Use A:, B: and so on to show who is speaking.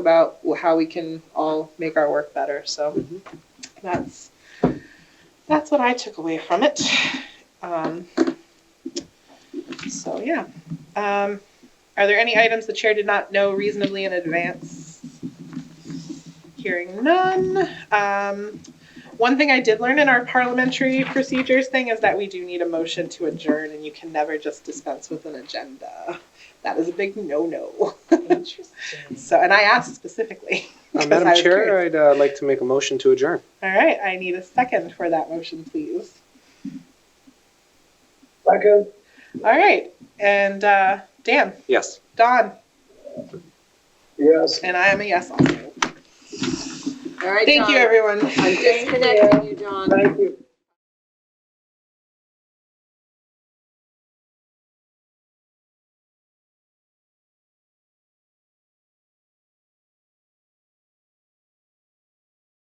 A: about how we can all make our work better. So
B: Mhm.
A: that's, that's what I took away from it. Um, So, yeah. Um, Are there any items the chair did not know reasonably in advance? Hearing none. Um, One thing I did learn in our parliamentary procedures thing is that we do need a motion to adjourn and you can never just dispense with an agenda. That is a big no-no. So, and I asked specifically.
B: Uh,
A: 'cause I
B: Madam
A: was
B: Chair,
A: curious.
B: I'd uh, like to make a motion to adjourn.
A: All right, I need a second for that motion, please.
C: Second,
A: All right, and uh, Dan,
B: Yes.
A: Don,
C: yes.
A: and I am a yes also.
D: All right,
A: Thank you,
D: John.
A: everyone.
D: I'm disconnecting you, John.
C: Thank you.